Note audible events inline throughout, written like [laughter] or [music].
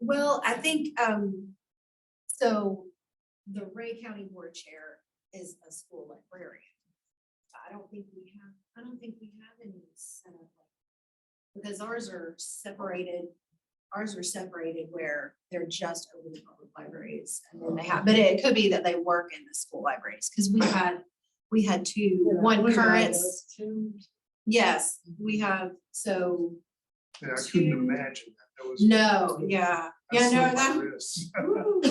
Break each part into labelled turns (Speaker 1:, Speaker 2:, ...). Speaker 1: Well, I think, um, so the Ray County Board Chair is a school librarian. So I don't think we have, I don't think we have any set up. like- Because ours are separated, ours are separated where they're just over the public libraries. And then they have, but it could be that they work in the school libraries, because we had, we had two, one current. Yes, we have, so,
Speaker 2: Yeah, I couldn't
Speaker 1: Two-
Speaker 2: imagine that. that. was-
Speaker 1: no, yeah, yeah, no,
Speaker 2: slipped my
Speaker 1: that.
Speaker 2: wrist.
Speaker 1: Ooh, that would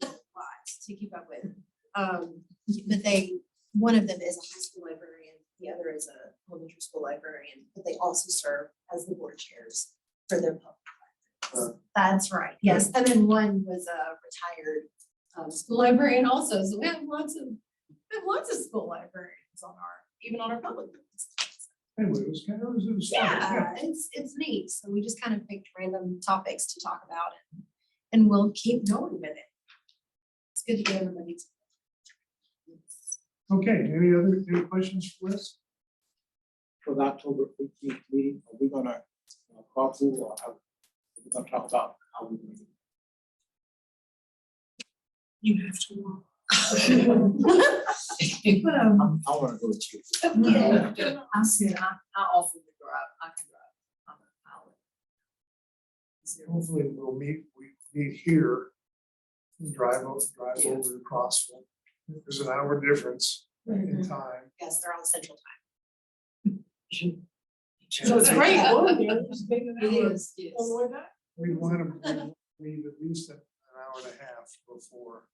Speaker 1: be a lot [laughs] To keep up with, um, but they, one of them is a high school librarian, the other is a elementary school librarian, but they also serve as the board chairs for their public. libraries. That's right, yes, and then one was a retired, um, school librarian also, so we have lots of, we have lots of school librarians on our, even on our public. libraries.
Speaker 2: Anyway, it was kind of, it was- it was. fun,
Speaker 1: Yeah, it's, it's neat. So we just kind of picked random topics to talk about and, and we'll keep going with it. It's good to get everybody. to-
Speaker 2: Okay, any other, any questions for us?
Speaker 3: for the October eighteenth meeting, are we gonna uh, call through or how, we're gonna talk about how we.
Speaker 1: You have to.
Speaker 3: I I wanna go with you.
Speaker 1: Yeah.
Speaker 4: I'm soon, I, I often to grow up, I can grow up. I'm a pilot.
Speaker 2: Hopefully we'll meet, we meet here. and Drive over, drive over to Crossville. There's an hour difference
Speaker 1: Mm-hmm.
Speaker 2: in time.
Speaker 1: Yes, they're on central time.
Speaker 4: So it's great.
Speaker 1: [laughs] It is.
Speaker 2: We want to leave at least an hour and a half before.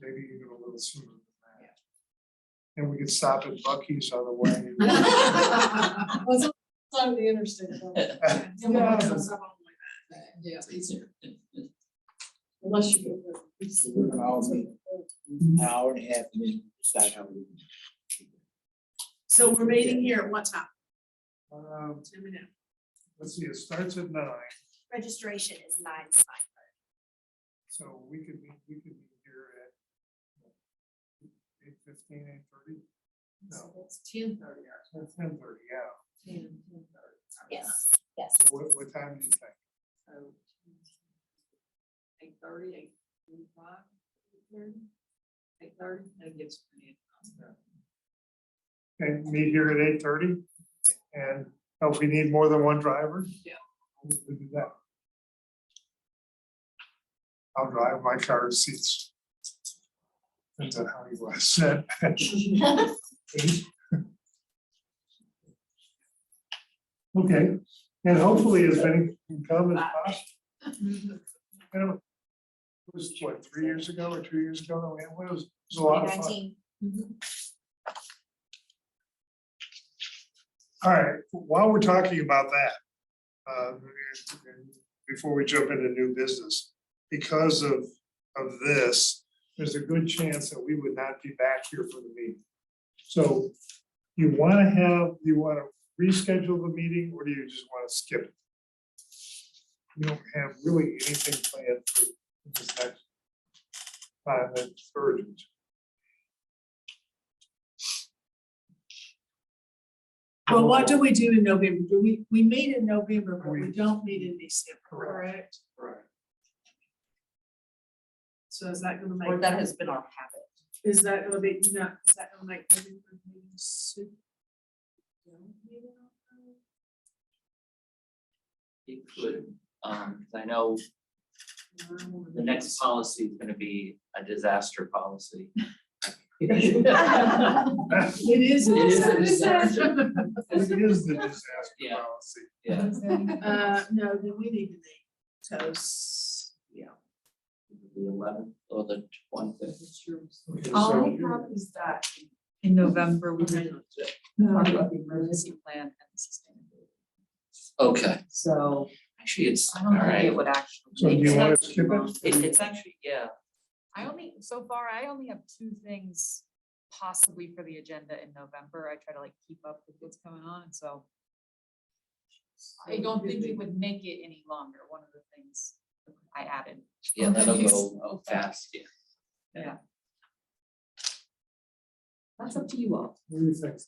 Speaker 2: Maybe even a little sooner than that. And we could stop at Bucky's on the way.
Speaker 1: [laughs]
Speaker 4: Was on the interstate. [laughs] Yeah, it's easier. Unless you.
Speaker 3: So We're gonna all be an hour and a half and then decide how we.
Speaker 5: So we're meeting here at what time?
Speaker 2: Um,
Speaker 5: Let me know.
Speaker 2: Let's see, it starts at nine,
Speaker 1: Registration is nine, it's fine.
Speaker 2: so we could be, we could be here at eight fifteen, eight thirty? No,
Speaker 4: It's ten thirty.
Speaker 2: ten thirty, yeah.
Speaker 1: Yes, yes.
Speaker 2: So What, what time do you think?
Speaker 4: Eight thirty, eight forty-five, eight thirty, eight thirty, that gives me.
Speaker 2: And meet here at eight thirty? And oh, if we need more than one driver?
Speaker 4: Yeah.
Speaker 2: We'll do that. I'll drive my car seats. Depends on how you want to sit. [laughs] Okay, and hopefully as many can come as possible.
Speaker 4: Mm-hmm.
Speaker 2: You know, It was what, three years ago or two years ago, that we had one? it was, it was a lot of fun.
Speaker 1: 2019.
Speaker 2: All right, while we're talking about that, uh, before we jump into new business, because of, of this, there's a good chance that we would not be back here for the meeting. So you want to have, you want to reschedule the meeting or do you just want to skip? it? We don't have really anything planned for this next time that's urgent.
Speaker 5: Well, what do we do in November? Do we, we meet in November, but we
Speaker 2: We-
Speaker 5: don't meet in December,
Speaker 2: Correct.
Speaker 5: correct?
Speaker 2: Right.
Speaker 5: So is that gonna
Speaker 4: Or
Speaker 5: make,
Speaker 4: that has been our habit.
Speaker 5: is that gonna be, no, is that gonna make November meeting soon?
Speaker 6: It could, um, 'cause I know the next policy is gonna be a disaster policy. [laughs]
Speaker 4: Yeah.
Speaker 5: It is.
Speaker 6: It is a
Speaker 5: in
Speaker 6: disaster.
Speaker 5: December.
Speaker 2: It is the disaster
Speaker 6: Yeah.
Speaker 2: policy.
Speaker 6: Yeah,
Speaker 5: Uh, no, then we need to meet, so, s- yeah.
Speaker 6: the eleventh or the twentieth.
Speaker 2: Okay,
Speaker 4: All
Speaker 2: so-
Speaker 4: we have is that in November, we did talk about the emergency plan and sustainability.
Speaker 6: Okay,
Speaker 4: So
Speaker 6: actually, it's,
Speaker 4: I
Speaker 6: all
Speaker 4: don't think
Speaker 6: right.
Speaker 4: it would actually.
Speaker 2: So do you
Speaker 4: make
Speaker 2: wanna
Speaker 4: sense.
Speaker 2: skip it?
Speaker 6: It, it's actually, yeah,
Speaker 7: I only, so far, I only have two things possibly for the agenda in November. I try to like keep up with what's going on, so. I don't think we would make it any longer, one of the things I added.
Speaker 6: yeah, that'll go fast, yeah.
Speaker 4: That's up to you all.
Speaker 2: What do you think?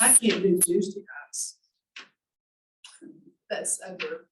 Speaker 5: I can't do Tuesday nights. That's over